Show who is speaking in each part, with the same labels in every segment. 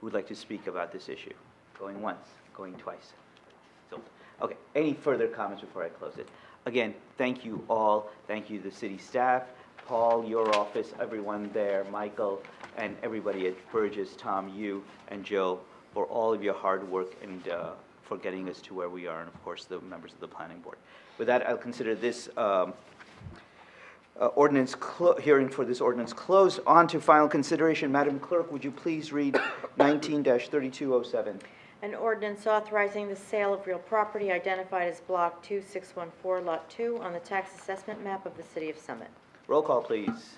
Speaker 1: who would like to speak about this issue? Going once, going twice. So, okay, any further comments before I close it? Again, thank you all, thank you, the city staff, Paul, your office, everyone there, Michael, and everybody at Burgess, Tom, you, and Joe, for all of your hard work and uh, for getting us to where we are, and of course, the members of the planning board. With that, I'll consider this um, uh, ordinance, clo- hearing for this ordinance closed. On to final consideration. Madam Clerk, would you please read 19-3207?
Speaker 2: An ordinance authorizing the sale of real property identified as Block 2614, Lot 2, on the tax assessment map of the city of Summit.
Speaker 1: Roll call, please.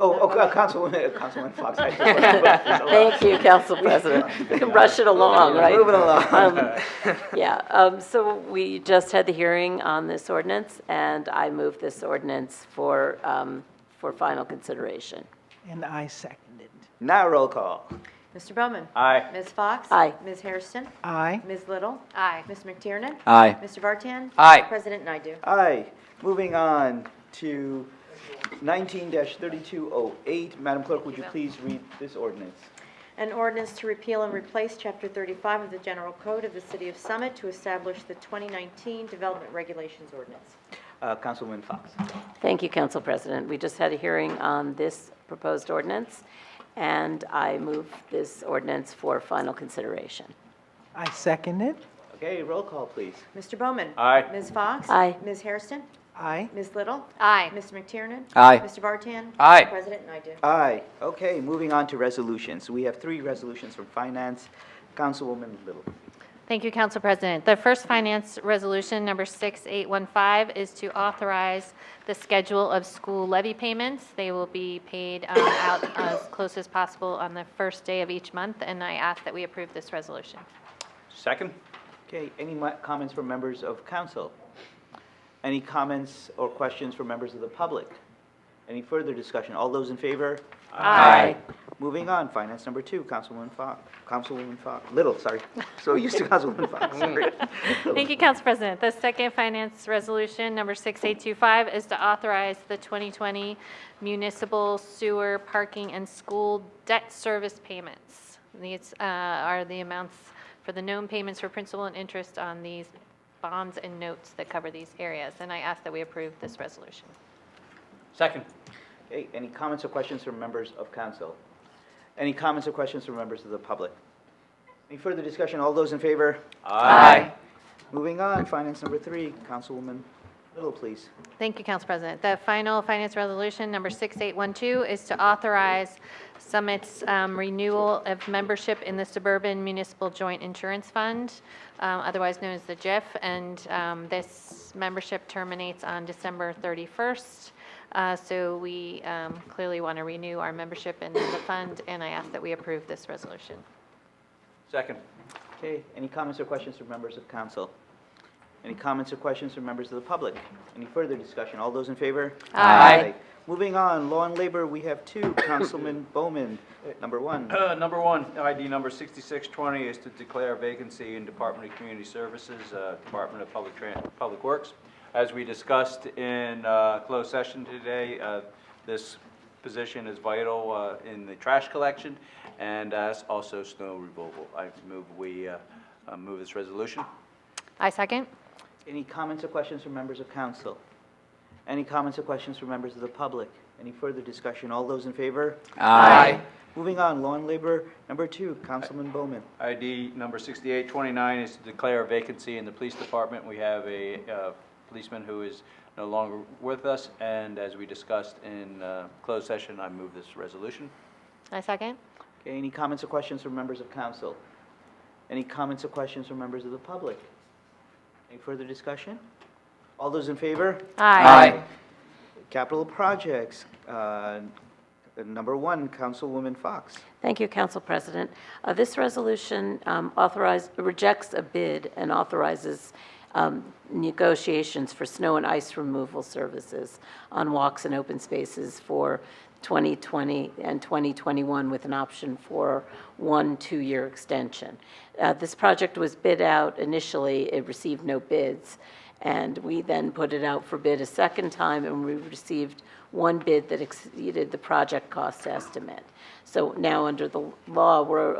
Speaker 1: Oh, oh, uh, Councilwoman, uh, Councilwoman Fox. I just wanted to vote.
Speaker 3: Thank you, Council President. We can Rush it along, right?
Speaker 1: Moving along.
Speaker 3: Um, Yeah, um, so we just had the hearing on this ordinance, and I move this ordinance for, um, for final consideration.
Speaker 4: And I seconded.
Speaker 1: Now roll call.
Speaker 2: Mr. Bowman?
Speaker 1: Aye.
Speaker 2: Ms. Fox?
Speaker 3: Aye.
Speaker 2: Ms. Hairston?
Speaker 4: Aye.
Speaker 2: Ms. Little? Aye. Ms. McTiernan?
Speaker 1: Aye.
Speaker 2: Mr. Vartan?
Speaker 1: Aye.
Speaker 2: President Naidu.
Speaker 1: Aye. Moving on to 19-3208. Madam Clerk, would you please read this ordinance?
Speaker 2: An ordinance to repeal and replace Chapter 35 of the General Code of the City of Summit to establish the 2019 Development Regulations Ordinance.
Speaker 1: Uh, Councilwoman Fox.
Speaker 3: Thank you, Council President. We just had a hearing on this proposed ordinance, and I move this ordinance for final consideration.
Speaker 4: I seconded.
Speaker 1: Okay, roll call, please.
Speaker 2: Mr. Bowman?
Speaker 1: Aye.
Speaker 2: Ms. Fox?
Speaker 3: Aye.
Speaker 2: Ms. Hairston?
Speaker 4: Aye.
Speaker 2: Ms. Little?
Speaker 3: Aye.
Speaker 2: Mr. McTiernan?
Speaker 1: Aye.
Speaker 2: Mr. Vartan?
Speaker 1: Aye.
Speaker 2: President Naidu.
Speaker 1: Aye. Okay, moving on to resolutions. We have three resolutions from Finance. Councilwoman Little.
Speaker 5: Thank you, Council President. The first finance resolution, number 6815, is to authorize the schedule of school levy payments. They will be paid um, out as close as possible on the first day of each month, and I ask that we approve this resolution.
Speaker 1: Second. Okay, any mi- comments from members of council? Any comments or questions from members of the public? Any further discussion? All those in favor?
Speaker 3: Aye.
Speaker 1: Moving on, finance number two, Councilwoman Fox, Councilwoman Fox, Little, sorry. So used to Councilwoman Fox, sorry.
Speaker 5: Thank you, Council President. The second finance resolution, number 6825, is to authorize the 2020 municipal sewer parking and school debt service payments. These uh, are the amounts for the known payments for principal and interest on these bonds and notes that cover these areas, and I ask that we approve this resolution.
Speaker 6: Second.
Speaker 1: Okay, any comments or questions from members of council? Any comments or questions from members of the public? Any further discussion? All those in favor?
Speaker 6: Aye.
Speaker 1: Moving on, finance number three, Councilwoman Little, please.
Speaker 5: Thank you, Council President. The final finance resolution, number 6812, is to authorize Summit's um, renewal of membership in the Suburban Municipal Joint Insurance Fund, um, otherwise known as the GIF, and um, this membership terminates on December 31st. Uh, So we um, clearly want to renew our membership in the fund, and I ask that we approve this resolution.
Speaker 6: Second.
Speaker 1: Okay, any comments or questions from members of council? Any comments or questions from members of the public? Any further discussion? All those in favor?
Speaker 3: Aye.
Speaker 1: Moving on, law and labor, we have two, Councilman Bowman, number one.
Speaker 6: Uh, Number one, ID number 6620 is to declare vacancy in Department of Community Services, uh, Department of Public Tran- Public Works. As we discussed in uh, closed session today, uh, this position is vital uh, in the trash collection and as also snow removal. I move we uh, uh, move this resolution.
Speaker 5: I second.
Speaker 1: Any comments or questions from members of council? Any comments or questions from members of the public? Any further discussion? All those in favor?
Speaker 6: Aye.
Speaker 1: Moving on, law and labor, number two, Councilman Bowman.
Speaker 6: ID number 6829 is to declare a vacancy in the police department. We have a uh, policeman who is no longer with us, and as we discussed in uh, closed session, I move this resolution.
Speaker 5: I second.
Speaker 1: Okay, any comments or questions from members of council? Any comments or questions from members of the public? Any further discussion? All those in favor?
Speaker 6: Aye.
Speaker 1: Capital projects, uh, number one, Councilwoman Fox.
Speaker 3: Thank you, Council President. Uh, This resolution um, authorize, rejects a bid and authorizes um, negotiations for snow and ice removal services on walks and open spaces for 2020 and 2021 with an option for one two-year extension. Uh, This project was bid out initially, it received no bids, and we then put it out for bid a second time, and we received one bid that exceeded the project cost estimate. So now, under the law, we're